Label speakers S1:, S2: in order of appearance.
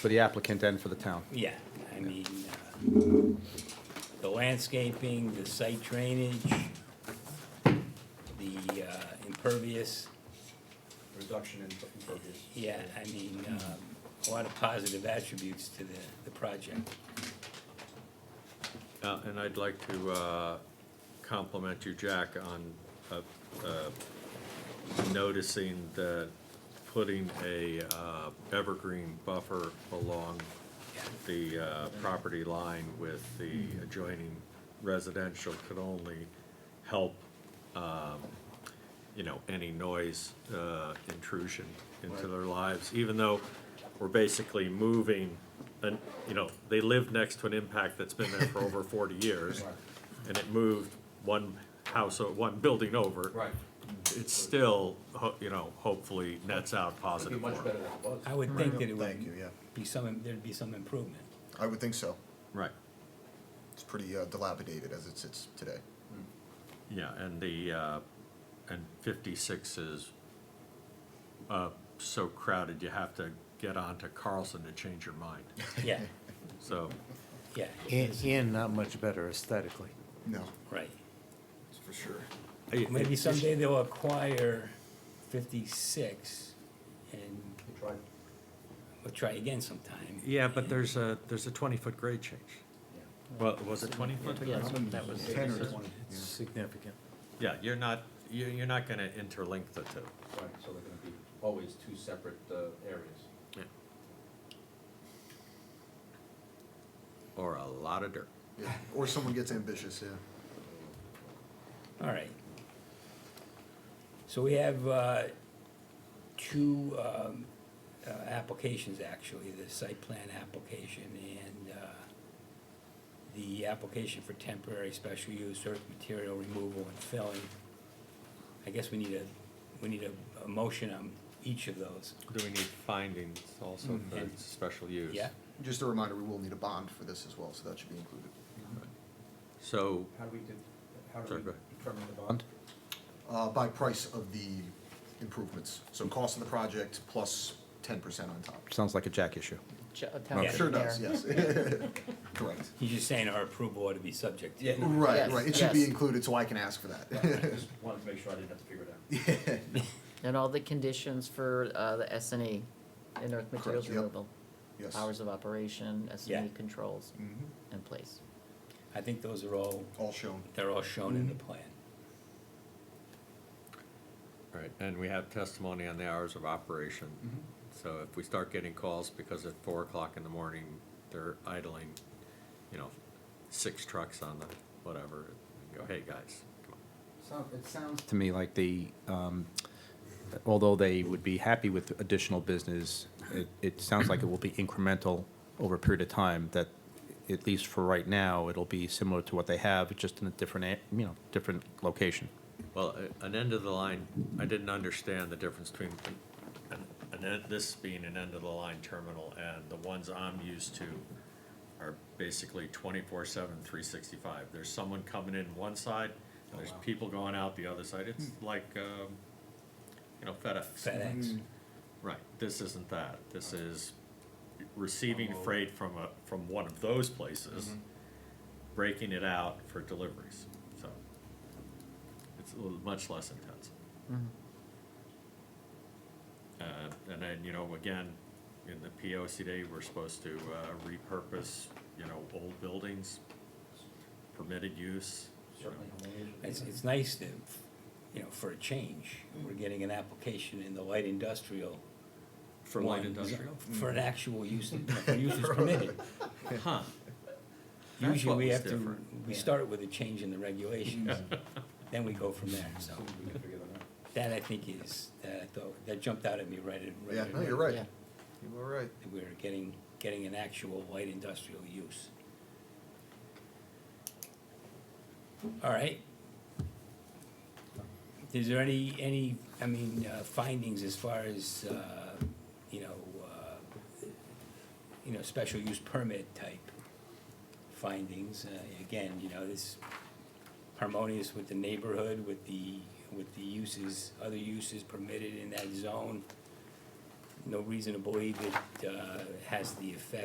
S1: for the applicant and for the town.
S2: Yeah, I mean, uh, the landscaping, the site drainage, the uh, impervious,
S1: Reduction in impervious.
S2: yeah, I mean, um, a lot of positive attributes to the, the project.
S3: Uh, And I'd like to uh, compliment you, Jack, on uh, uh, noticing that putting a uh, evergreen buffer along
S2: Yeah.
S3: the uh, property line with the adjoining residential could only help, um, you know, any noise uh, intrusion into their lives, even though we're basically moving, and, you know, they live next to an impact that's been there for over forty years, and it moved one house, or one building over.
S4: Right.
S3: It's still, ho- you know, hopefully nets out
S4: It'd be
S3: positive for
S4: much
S3: them.
S4: better than it was.
S2: I would think that it
S5: Thank you,
S2: would
S5: yeah.
S2: be some, there'd be some improvement.
S5: I would think so.
S3: Right.
S5: It's pretty uh, dilapidated as it sits today.
S3: Yeah, and the, uh, and 56 is uh, so crowded, you have to get onto Carlson to change your mind.
S2: Yeah,
S3: So,
S2: yeah,
S6: And, and not much better aesthetically.
S5: No.
S2: right.
S5: For sure.
S2: Maybe someday they'll acquire fifty-six and
S4: They tried.
S2: we'll try again sometime.
S3: yeah, but there's a, there's a 20-foot grade change. Well, was it 20-foot?
S6: that was
S5: Ten or twenty.
S6: significant.
S3: Yeah, you're not, you're, you're not gonna interlink the two.
S4: Right, so they're gonna be always two separate uh, areas.
S3: Or a lot of dirt.
S5: Yeah. Or someone gets ambitious, yeah.
S2: All right. So we have uh, two um, uh, applications, actually, the site plan application and uh, the application for temporary special use earth material removal and filling. I guess we need a, we need a, a motion on each of those,
S3: Do we need findings also for special use?
S2: yeah?
S5: Just a reminder, we will need a bond for this as well, so that should be included.
S7: Mm-hmm.
S3: So,
S4: How do we, did- how do
S3: Sorry,
S4: we
S3: go ahead.
S4: determine the bond?
S5: Uh, by price of the improvements, so cost of the project plus ten percent on top.
S1: Sounds like a Jack issue.
S7: Ch- a town
S2: Yeah.
S5: Sure
S7: engineer.
S5: does, yes. Correct.
S2: He's just saying our approval ought to be subject to.
S4: Yeah.
S5: Right,
S7: Yes,
S5: right. It should be
S7: yes.
S5: included, so I can ask for
S4: I
S5: that.
S4: just wanted to make sure I didn't have to figure it out.
S7: And all the conditions for uh, the S and E, in earth materials
S5: yep.
S7: removal,
S5: Yes.
S7: hours of operation, S and E
S2: Yeah.
S7: controls
S5: Mhm.
S7: in place.
S2: I think those are all,
S5: All shown.
S2: they're all shown in the plan.
S3: Right, and we have testimony on the hours of operation.
S4: Mm-hmm.
S3: So if we start getting calls because at four o'clock in the morning, they're idling, you know, six trucks on the whatever, and go, hey, guys, come on.
S4: Sound- It sounds,
S1: To me, like the, um, although they would be happy with additional business, it, it sounds like it will be incremental over a period of time, that at least for right now, it'll be similar to what they have, just in a different, a- you know, different location.
S3: Well, a- an end of the line, I didn't understand the difference between an, an, en- this being an end of the line terminal and the ones I'm used to are basically twenty-four seven, three sixty-five. There's someone coming in one side, there's people going out the other side. It's like, um, you know, FedEx.
S5: Mm-hmm.
S2: FedEx,
S5: Mm,
S3: Right, this isn't that. This is receiving freight from a, Mm-hmm. from one of those places, breaking it out for deliveries, so. It's a little, much less intense. Uh, and then, you know, again, in the P O C D, we're supposed to, uh, repurpose, you know, old buildings, permitted use. you know.
S4: certainly.
S2: it's, it's nice to, you know, for a change,
S3: Mm-hmm.
S2: we're getting an application in the light industrial.
S3: For light
S2: one,
S3: industrial? Mm-hmm.
S2: For an actual use, for use is permitted.
S3: Huh, That's
S2: Usually
S3: what
S2: we
S3: was
S2: have to,
S3: different.
S2: we start with a change in the regulations, then we go from there, so.
S4: Soon we can figure that out.
S2: That I think is, that I thought, that jumped out at me right, at- right.
S5: Yeah,
S2: at-
S5: no, you're right.
S7: Yeah.
S5: You were right.
S2: that We're getting, getting an actual light industrial use. All right. Is there any, any, I mean, uh, findings as far as, uh, you know, uh, you know, special use permit type findings? Uh, Again, you know, this harmonious with the neighborhood, with the, with the uses, other uses permitted in that zone. no reason to believe it uh, has the effect